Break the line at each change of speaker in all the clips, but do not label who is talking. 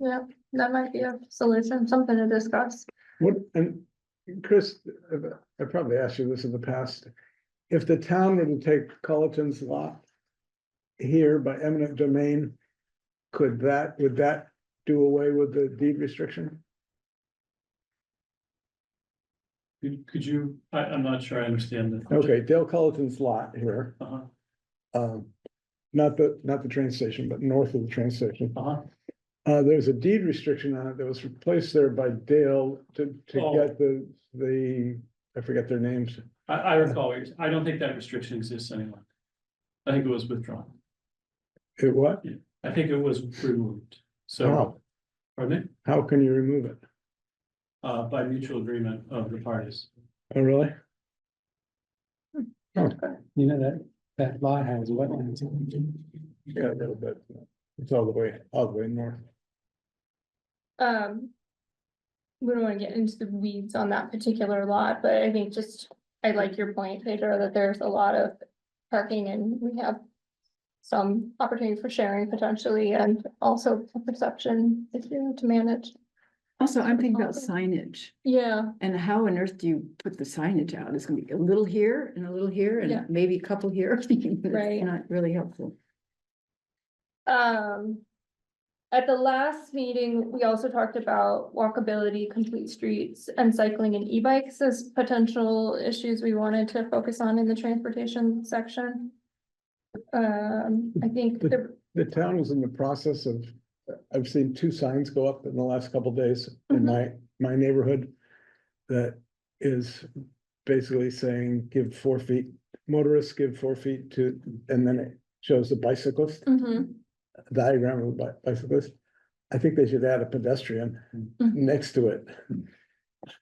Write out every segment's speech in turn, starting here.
Yeah, that might be a solution, something to discuss.
What, and Chris, I- I probably asked you this in the past. If the town were to take Culleton's lot here by eminent domain, could that, would that do away with the deed restriction?
Could, could you, I, I'm not sure I understand that.
Okay, Dale Culleton's lot here,
Uh-huh,
um, not the, not the train station, but north of the train station.
uh-huh.
Uh, there's a deed restriction on it that was replaced there by Dale to, to
Oh.
get the, the, I forget their names.
I, I recall, what you're s- I don't think that restriction exists anymore. I think it was withdrawn.
It what?
I think it was removed, so.
Wow.
Pardon me,
How can you remove it?
uh, by mutual agreement of the parties.
Oh, really?
You know, that, that lot has wetlands.
Yeah, a little bit. It's all the way, all the way north.
Um. We don't wanna get into the weeds on that particular lot, but I think just, I like your point, Pedro, that there's a lot of parking and we have. Some opportunity for sharing potentially and also a perception if you to manage.
Also, I'm thinking about
Awesome.
signage
Yeah,
and how on earth do you put the signage out? It's gonna be a little here and a little here
Yeah.
and maybe a couple here. It's
Right.
Not really helpful.
um. At the last meeting, we also talked about walkability, complete streets and cycling and e-bikes as potential issues we wanted to focus on in the transportation section. Um, I think
But-
the,
The town is in the process of, I've seen two signs go up in the last couple days in
Mhm.
my, my neighborhood. That is basically saying, give four feet, motorists give four feet to, and then it shows the bicyclist,
Mhm,
diagram of the bi- bicyclist. I think they should add a pedestrian
Mhm.
next to it.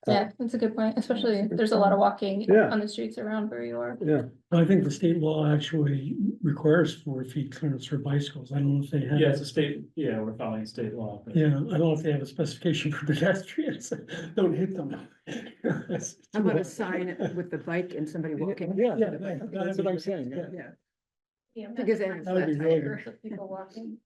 yeah, that's a good point, especially if there's a lot of walking
Yeah.
on the streets around where you are.
Yeah,
I think the state law actually requires four feet clearance for bicycles. I don't know if they have.
Yeah, it's a state, yeah, we're following state law, but
Yeah, I don't know if they have a specification for pedestrians. Don't hit them.
How about a sign with the bike and somebody walking?
Yeah,
Yeah, that-
that's what I'm saying. yeah.
Yeah,
Yeah.
because they have
That would
flat
be really good.
tire.
People walking.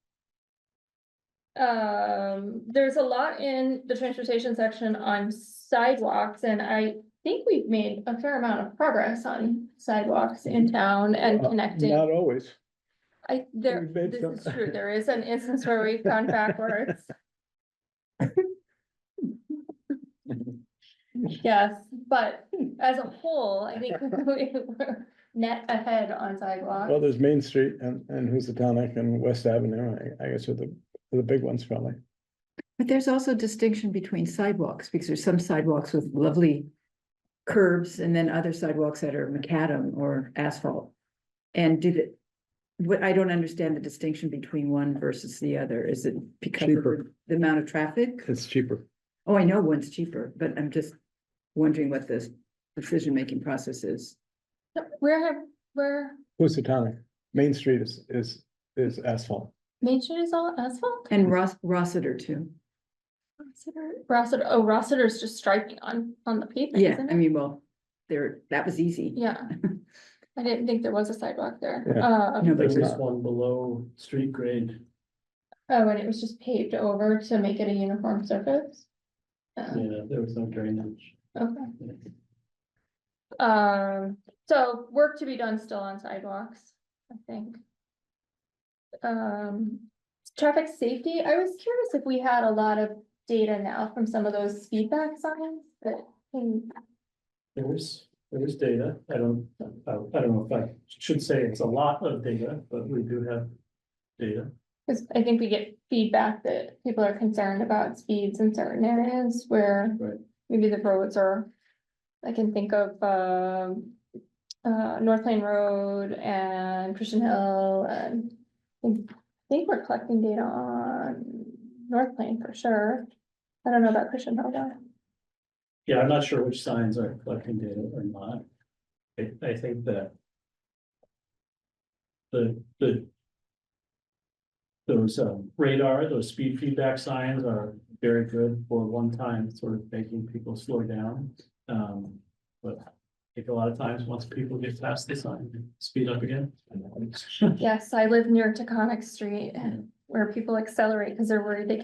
Um, there's a lot in the transportation section on sidewalks and I think we've made a fair amount of progress on sidewalks in town and
Uh,
connecting.
Not always.
I, there,
we've made
this
some-
is true, there is an instance where we've gone backwards. Yes, but as a whole, I think we we're net ahead on sidewalks.
Well, there's Main Street and, and who's the tonic and West Avenue, I, I guess are the, are the big ones probably.
But there's also distinction between sidewalks because there's some sidewalks with lovely curves and then other sidewalks that are macadam or asphalt. And did it, what I don't understand the distinction between one versus the other. Is it because of
Cheaper.
the amount of traffic?
It's cheaper.
Oh, I know one's cheaper, but I'm just wondering what this decision-making process is.
Where have, where,
Who's the tonic? Main Street is, is, is asphalt.
Main Street is all asphalt?
And Ross, Rossiter too.
Rossiter- Rossiter, oh, Rossiter's just striking on, on the pavement,
Yeah,
isn't
I
it?
mean, well, there, that was easy.
Yeah. I didn't think there was a sidewalk there.
Yeah.
Uh,
No, but
there's
it's
this
not.
one below street grade.
oh, and it was just paved over to make it a uniform surface. Um,
Yeah, there was no drainage.
okay, um, so work to be done still on sidewalks, I think. Um, traffic safety, I was curious if we had a lot of data now from some of those feedback signs that can
There is, there is data. I don't, I I don't know if I should say it's a lot of data, but we do have data.
Cause I think we get feedback that people are concerned about speeds in certain areas where
Right.
maybe the roads are. I can think of, um, uh, North Plain Road and Christian Hill and. I think- I think we're collecting data on North Plain for sure. I don't know about Christian Hill though.
Yeah, I'm not sure which signs are collecting data or not. I, I think that. The, the. Those um, radar, those speed feedback signs are very good for one time sort of making people slow down. Um, but I think a lot of times, once people get past the sign, they speed up again.
Yes, I live near Taconic Street where people accelerate because they're worried they can't